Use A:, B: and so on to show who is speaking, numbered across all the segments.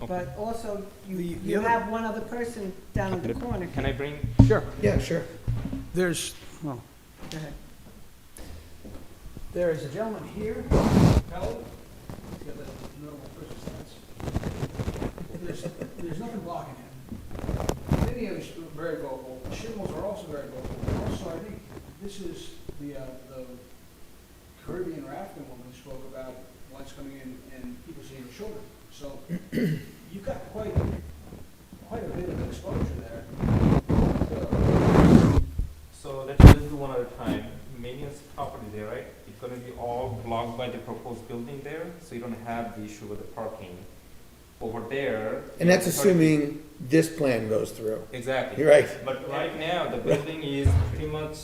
A: But also, you,
B: The- the
A: you
B: other-
A: have one other person down at the corner.
C: Can I bring,
B: Sure.
D: Yeah, sure.
B: There's, well,
A: Go ahead.
B: there is a gentleman here, Howell. He's got that normal person's stance. There's, there's nothing blocking him. Many of us are very vocal, shingles are also very vocal. Also, I think this is the, uh, the Caribbean or African woman who spoke about lights coming in and people seeing her children. So you've got quite, quite a bit of exposure there. Uh,
C: so let's just do one at a time. Minion's property there, right? It's gonna be all blocked by the proposed building there, so you don't have the issue with the parking. Over there.
D: And that's
C: it's already-
D: assuming this plan goes through.
C: Exactly.
D: You're right.
C: But right now, the building is pretty much,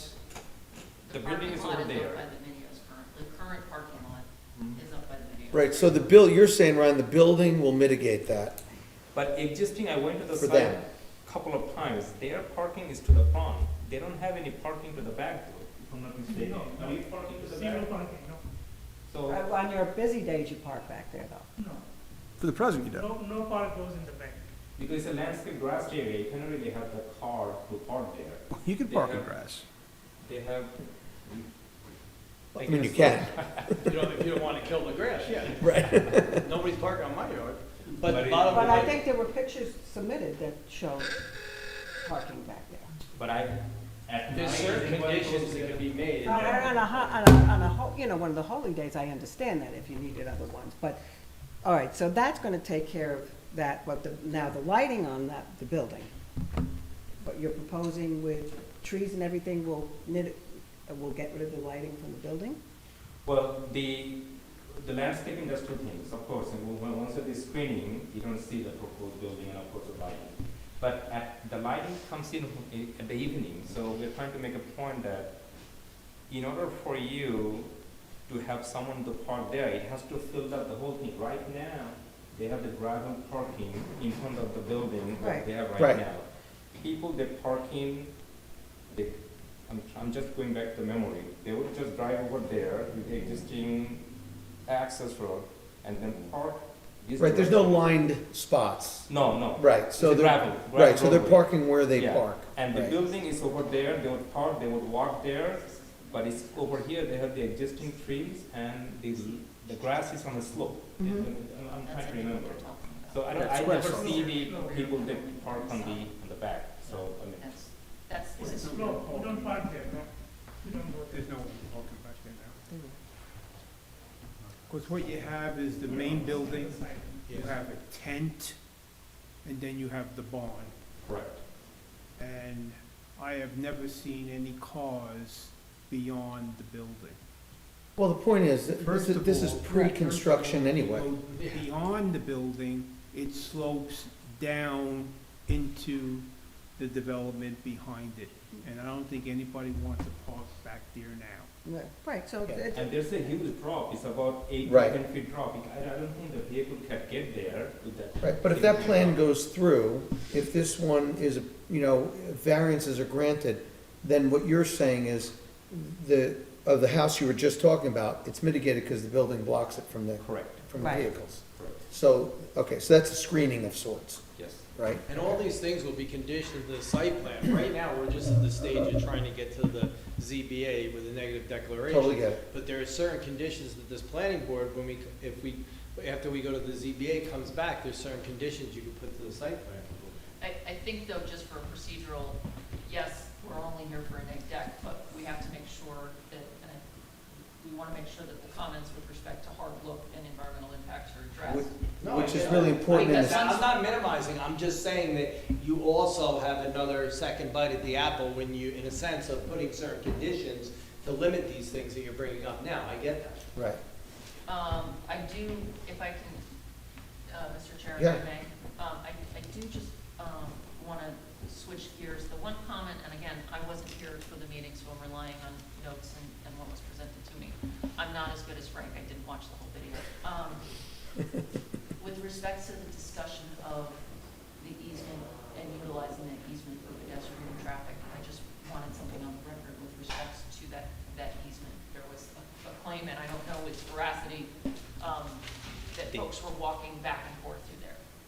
C: the building is over
E: Parking
C: there.
E: lot is up by the videos current, the current parking lot
C: Mhm.
E: is up by the videos.
D: Right, so the bill, you're saying, Ryan, the building will mitigate that
C: But existing, I went to the
D: for them.
C: site couple of times, their parking is to the front. They don't have any parking to the back door, if I'm not mistaken. Are you parking to the back?
F: parking,
C: So,
A: Uh, On your busy days, you park back there though.
F: no,
B: For the present, you
F: no, no, no park goes in the back.
C: because it's a landscape grass area, you cannot really have the car to park there.
B: You can
C: park in
B: grass.
C: They have.
D: I mean, you can,
G: You don't, if you don't wanna kill the grass, yeah,
D: right?
G: nobody's parking on my yard,
C: But
G: but
C: it-
G: the bottom
A: But
G: of
A: I
G: it-
A: think there were pictures submitted that show parking back there.
C: But I, at night.
G: There's certain
C: everybody goes
G: conditions
C: to
G: that
C: the-
G: can be made.
A: On on a, ho- on a, on a, ho- you know, one of the holy days, I understand that if you needed other ones, but, all right, so that's gonna take care of that, but the, now the lighting on that, the building. What you're proposing with trees and everything will knit, uh, will get rid of the lighting from the building?
C: Well, the, the landscaping, that's two things, of course, and when- when, once it is screening, you don't see the proposed building and of course the lighting. But at, the lighting comes in i- at the evening, so we're trying to make a point that in order for you to have someone to park there, it has to fill up the whole thing. Right now, they have the gravel parking in front of the building that
A: Right.
C: they have right
D: Right.
C: now. People, they park in, they I'm, I'm just going back to memory. They would just drive over there with the existing access road and then park. this
D: Right, there's no
C: direction.
D: lined spots.
C: No, no.
D: Right, so
C: It's a
D: they're,
C: gravel,
D: right, so
C: gravel
D: they're
C: roadway.
D: parking where they
C: Yeah.
D: park.
C: And the
D: right.
C: building is over there, they would park, they would walk there, but it's over here, they have the existing trees and the, the grass is on a slope.
A: Mhm.
C: I'm- I'm
E: Mm-hmm.
C: trying to
E: That's I think what
C: remember.
E: we're talking about.
C: So I don't,
B: That's
C: I
B: square
C: never
B: slope.
C: see the people that park on the, on the back, so, I mean,
E: That's, that's.
F: It's a slope, we don't park there, no, we don't go there.
H: There's no one walking back there now. Because what you have is the main building, you have a tent, and then you have the barn.
C: correct.
H: And I have never seen any cars beyond the building.
D: Well, the point is, that this
H: First
D: is,
H: of
D: this is
H: all-
D: pre-construction
H: First of all,
D: anyway.
H: you go Beyond the building, it slopes down into the development behind it. And I don't think anybody wants to park back there now.
A: Right, so
D: Yeah.
A: it's,
C: And there's a huge drop, it's about eight to
D: Right.
C: ten feet drop. I, I don't think the vehicle can get there with that.
D: Right, but if that plan goes through, if this one is, you know, variances are granted, then what you're saying is the, of the house you were just talking about, it's mitigated because the building blocks it from the,
C: Correct,
D: from the
A: Right.
D: vehicles.
C: correct,
D: So, okay, so that's a screening of sorts,
C: yes.
D: right?
G: And all these things will be conditioned to the site plan. Right now, we're just at the stage of trying to get to the ZBA with a negative declaration.
D: Totally get it.
G: But there are certain conditions that this planning board, when we, if we, after we go to the ZBA comes back, there's certain conditions you can put to the site plan.
E: I, I think though, just for procedural, yes, we're only here for a neg deck, but we have to make sure that, and I- we want to make sure that the comments with respect to hard look and environmental impacts are addressed.
G: No,
D: Which
G: I-
D: is really
G: I-
D: important in
G: I-
E: this-
G: I'm not minimizing, I'm just saying that you also have another second bite at the apple when you, in a sense, of putting certain conditions to limit these things that you're bringing up now, I get that.
D: Right.
E: Um, I do, if I can, uh, Mr. Chair, if
D: Yeah.
E: I may, um, I, I do just, um, wanna switch gears. The one comment, and again, I wasn't here for the meeting, so I'm relying on notes and, and what was presented to me. I'm not as good as Frank, I didn't watch the whole video. Um, with respect to the discussion of the easement and utilizing that easement for pedestrian traffic, I just wanted something on the record with respect to that, that easement. There was a a claim, and I don't know its veracity, um, that folks were walking back